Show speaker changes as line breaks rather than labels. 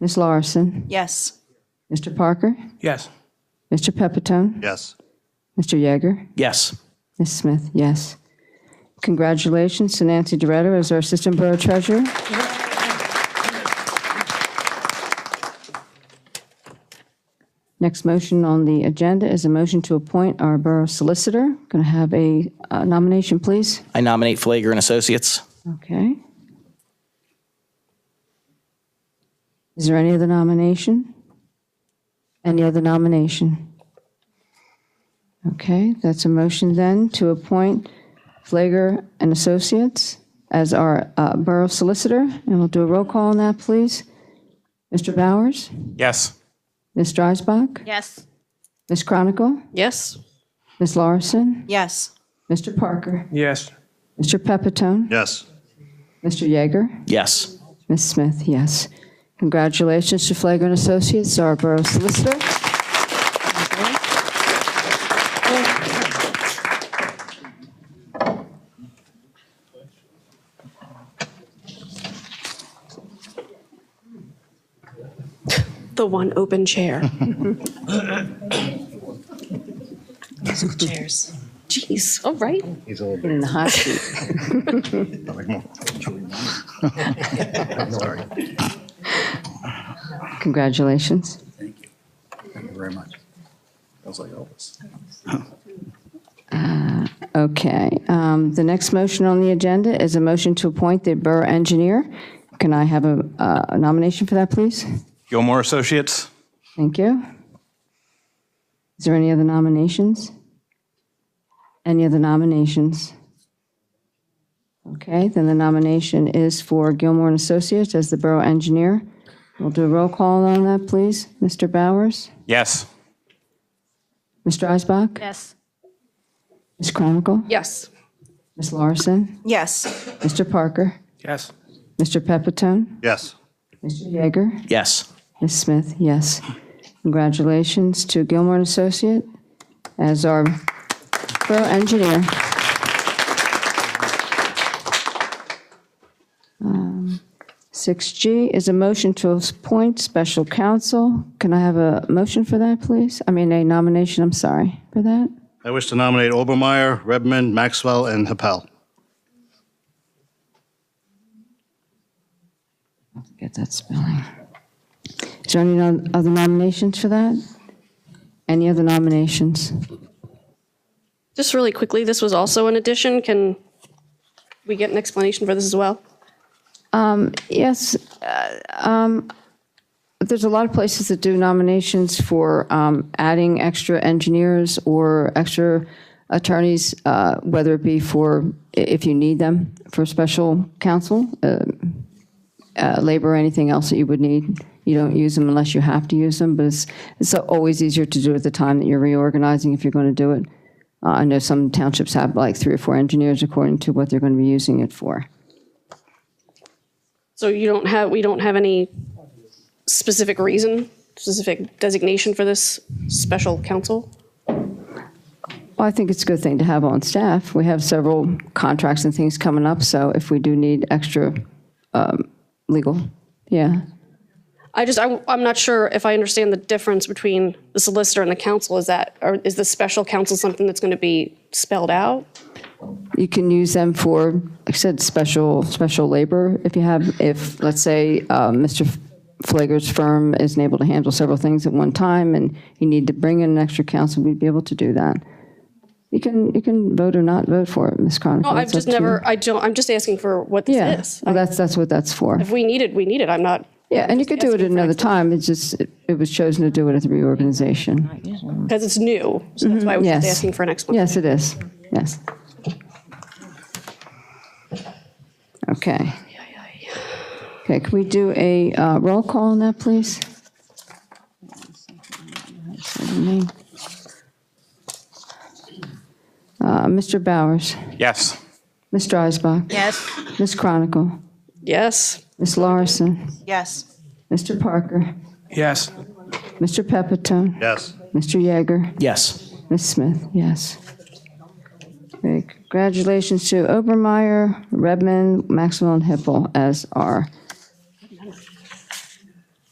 Ms. Larson,
Yes.
Mr. Parker,
Yes.
Mr. Pepitone,
Yes.
Mr. Yeager,
Yes.
Ms. Smith, yes. Congratulations to Nancy Doretta as our Assistant Borough Treasurer. Next motion on the agenda is a motion to appoint our Borough Solicitor. Going to have a uh, nomination, please?
I nominate Flager and Associates.
Okay. Is there any other nomination? Any other nomination? Okay, that's a motion then to appoint Flager and Associates as our uh, Borough Solicitor, and we'll do a roll call on that, please. Mr. Bowers?
Yes.
Ms. Dreisbach?
Yes.
Ms. Chronicle?
Yes.
Ms. Larson?
Yes.
Mr. Parker?
Yes.
Mr. Pepitone?
Yes.
Mr. Yeager?
Yes.
Ms. Smith, yes. Congratulations to Flagler and Associates, our Borough Solicitor.
the one open chair.
Chairs.
Jeez, all right.
He's a little
In the hot seat.
Sorry.
Congratulations.
Thank you very much. I was like Elvis.
Uh, Okay. um, The next motion on the agenda is a motion to appoint the Borough Engineer. Can I have a uh, a nomination for that, please?
Gilmore Associates.
Thank you. Is there any other nominations? Any other nominations? Okay, then the nomination is for Gilmore and Associates as the Borough Engineer. We'll do a roll call on that, please. Mr. Bowers?
Yes.
Mr. Eisbach?
Yes.
Ms. Chronicle?
Yes.
Ms. Larson?
Yes.
Mr. Parker?
Yes.
Mr. Pepitone?
Yes.
Mr. Yeager?
Yes.
Ms. Smith, yes. Congratulations to Gilmore and Associate as our borough engineer. Um, 6G is a motion to appoint special counsel. Can I have a motion for that, please? I mean, a nomination, I'm sorry, for that?
I wish to nominate Obermeyer, Redmond, Maxwell, and Happel.
Get that spelling. Is there any no- other nominations for that? Any other nominations?
Just really quickly, this was also an addition. Can we get an explanation for this as well?
Yes, uh, um, there's a lot of places that do nominations for um, adding extra engineers or extra attorneys, uh, whether it be for, i- if you need them, for special counsel, uh, uh, labor, or anything else that you would need. You don't use them unless you have to use them, but it's, it's always easier to do at the time that you're reorganizing if you're going to do it. Uh, I know some townships have like three or four engineers according to what they're going to be using it for.
So you don't have, we don't have any specific reason, specific designation for this special counsel?
Well, I think it's a good thing to have on staff. We have several contracts and things coming up, so if we do need extra um, legal, yeah.
I just, I, I'm not sure if I understand the difference between the solicitor and the counsel. Is that, or is the special counsel something that's going to be spelled out?
You can use them for, like I said, special, special labor. If you have, if, let's say, uh, Mr. Flager's firm isn't able to handle several things at one time and you need to bring in an extra counsel, we'd be able to do that. You can, you can vote or not vote for it, Ms. Chronicle.
No, I've
It's up
just
to you.
never, I don't, I'm just asking for what
Yeah,
this is.
well, that's, that's what that's for.
If we need it, we need it. I'm not,
Yeah, and you could do it at another time, it's just, it- it was chosen to do it at the reorganization.
because it's new. So that's why I was just
Mm-hmm. yes.
asking for an explanation.
Yes, it is, yes. Okay. Okay, can we do a uh, roll call on that, please? Uh, Mr. Bowers,
Yes.
Ms. Dreisbach,
Yes.
Ms. Chronicle,
Yes.
Ms. Larson,
Yes.
Mr. Parker,
Yes.
Mr. Pepitone,
Yes.
Mr. Yeager.
Yes.
Ms. Smith, yes. Okay, Congratulations to Obermeyer, Redmond, Maxwell, and Hippel as our